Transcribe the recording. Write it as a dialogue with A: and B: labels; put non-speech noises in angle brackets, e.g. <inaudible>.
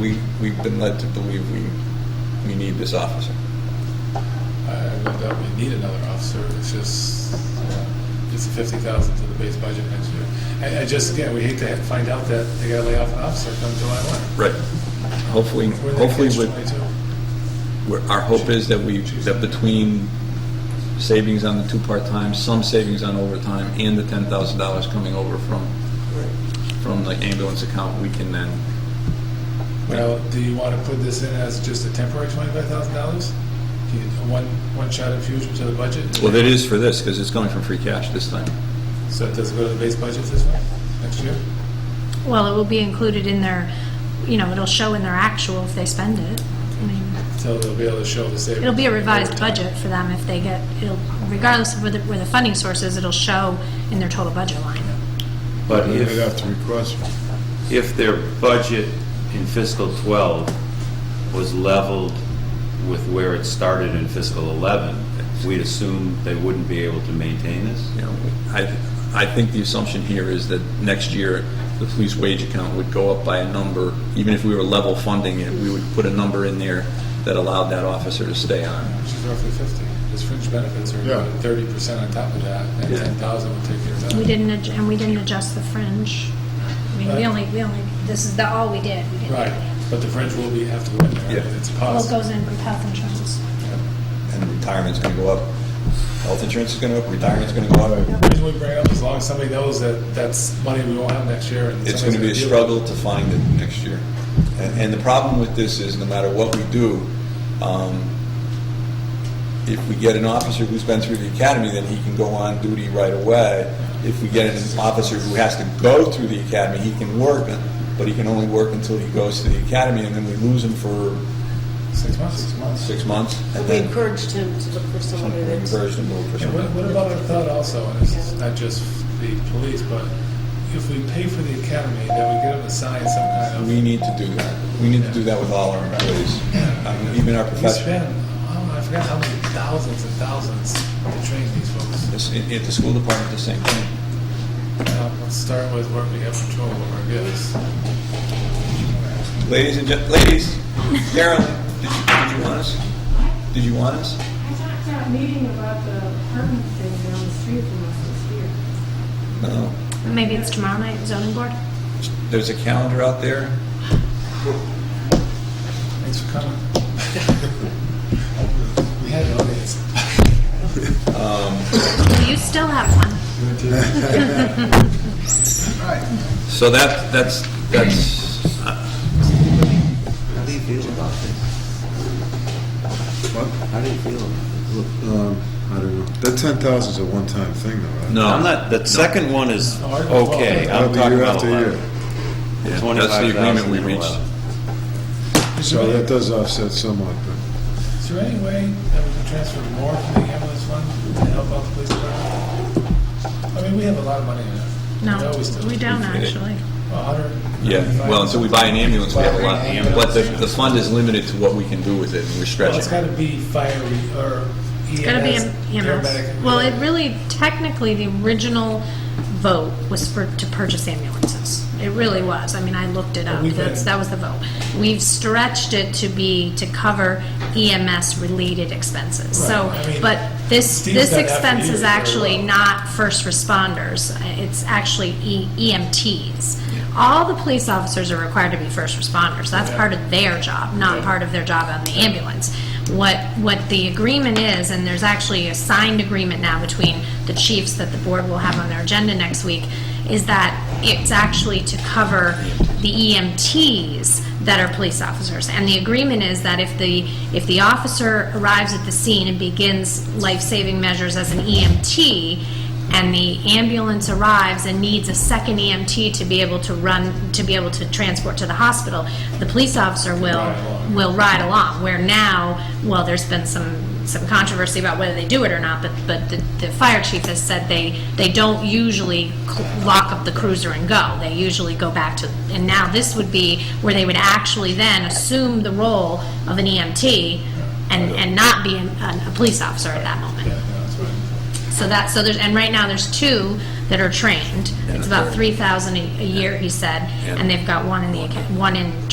A: we, we've been led to believe we, we need this officer.
B: I don't doubt we need another officer, it's just, uh, it's fifty thousand to the base budget next year. I, I just, again, we hate to ha- find out that they gotta lay off an officer come July one.
A: Right. Hopefully,
B: We're in that
A: hopefully, with-
B: catch-22.
A: we're- our hope is that we, that between savings on the two part-time, some savings on overtime, and the ten thousand dollars coming over from, from the ambulance account, we can then,
B: Well, do you wanna put this in as just a temporary twenty-five thousand dollars? Do you, a one, one-shot infusion to the budget?
A: well, that is for this, because it's going from free cash this time.
B: So it doesn't go to the base budget this way, next year?
C: Well, it will be included in their, you know, it'll show in their actual if they spend it. I mean,
B: So they'll be able to show the savings.
C: it'll be a revised
B: over time.
C: budget for them if they get, it'll, regardless of where the, where the funding source is, it'll show in their total budget line.
D: But
E: They'd
D: if,
E: have to request,
D: if their budget in fiscal 12 was leveled with where it started in fiscal 11, we'd assume they wouldn't be able to maintain this?
A: You know, I, I think the assumption here is that next year, the police wage account would go up by a number, even if we were level funding it, we would put a number in there that allowed that officer to stay on.
B: Which is roughly fifty, because fringe benefits
E: Yeah.
B: are thirty percent on top of that, and
A: Yeah.
B: ten thousand would take care of that.
C: We didn't, adj- and we didn't adjust the fringe. I mean, we only, we only, this is the, all we did. We didn't do
B: Right,
C: any-
B: but the fringe will be, have to go in there,
A: Yeah.
B: I mean, it's a
C: Well, it
B: cost.
C: goes in with health insurance.
A: And retirement's gonna go up, health insurance is gonna go up, retirement's gonna go up.
B: The reason we bring it up, as long as somebody knows that that's money we won't have next year, and
A: It's
B: somebody's
A: gonna be a
B: deal with
A: struggle
B: it.
A: to find it next year. And, and the problem with this is, no matter what we do, um, if we get an officer who's been through the academy, then he can go on duty right away. If we get an officer who has to go through the academy, he can work, but he can only work until he goes to the academy, and then we lose him for
B: Six months. Six months.
A: six months. and
F: We
A: then
F: encouraged him to look for somebody
A: we
F: that's,
A: encourage him to look for
B: And what,
A: something.
B: what about our thought also, and this is not just the police, but if we pay for the academy, then we get them to sign some kind of.
A: We need to do that. We need to do that with all our employees, um, even our
B: We
A: professionals.
B: spend, oh, I forgot how many thousands and thousands to train these folks.
A: It's- it- At the school department, the same thing.
B: Now, Um, Let's start with what we have control over, yes.
A: Ladies and gen, ladies, Carolyn, did you, did you want us? Did you want us?
G: I talked to a meeting about the apartment thing down the street from us this year.
A: No.
C: Maybe it's tomorrow night, zoning board?
A: There's a calendar out there.
B: Thanks for coming. <laughs> We had an audience.
C: You still have one.
A: So that, that's, that's, uh,
H: How do you feel about this? How do you feel about this?
E: um, I don't know. That ten thousand is a one-time thing though, right?
A: no.
D: I'm not, the second one is
B: No, I don't know.
D: okay, I'm
E: That'll be
D: talking
E: year
D: about
E: after year.
D: 11.
A: Yeah, That's the
D: 25,000
A: agreement we
D: and
A: reached.
D: 11.
B: Is
E: So
B: there
E: that
B: any-
E: does offset somewhat, but
B: is there any way that we can transfer more from the ambulance fund to help out the police department? I mean, we have a lot of money in it.
C: No,
B: always do.
C: we don't
A: We did.
C: actually.
B: A hundred.
A: Yeah, well, until we buy an ambulance, we have a lot.
B: Buy an
A: But the,
B: ambulance.
A: the fund is limited to what we can do with it, and we're
B: Well, it's
A: stretching.
B: gotta be fire, re- or EMS.
C: It's gotta be a
B: paramedic,
C: EMS. Well, it
B: whatever.
C: really, technically, the original vote was for, to purchase ambulances. It really was. I mean, I looked it up.
B: We've been-
C: That's, that was the vote. We've stretched it to be, to cover EMS-related expenses. So,
B: Right, I mean,
C: but this,
B: Steve's
C: this
B: done that for
C: expense
B: years
C: is
B: very
C: actually
B: well.
C: not first responders. It's actually E- EMTs. All the police officers are required to be first responders. That's
B: Yeah.
C: part of their job, not part of their job on the ambulance. What, what the agreement is, and there's actually a signed agreement now between the chiefs that the board will have on their agenda next week, is that it's actually to cover the EMTs that are police officers. And the agreement is that if the, if the officer arrives at the scene and begins life-saving measures as an EMT, and the ambulance arrives and needs a second EMT to be able to run, to be able to transport to the hospital, the police officer will,
B: Ride along.
C: will ride along, where now, well, there's been some, some controversy about whether they do it or not, but, but the, the fire chief has said they, they don't usually cl- lock up the cruiser and go, they usually go back to, and now this would be where they would actually then assume the role of an EMT and, and not be an- a, a police officer at that moment.
B: Yeah, no, that's right.
C: So that, so there's, and right now, there's two that are trained. It's about 3,000 a a year, he said, and they've got one in the, aca- one in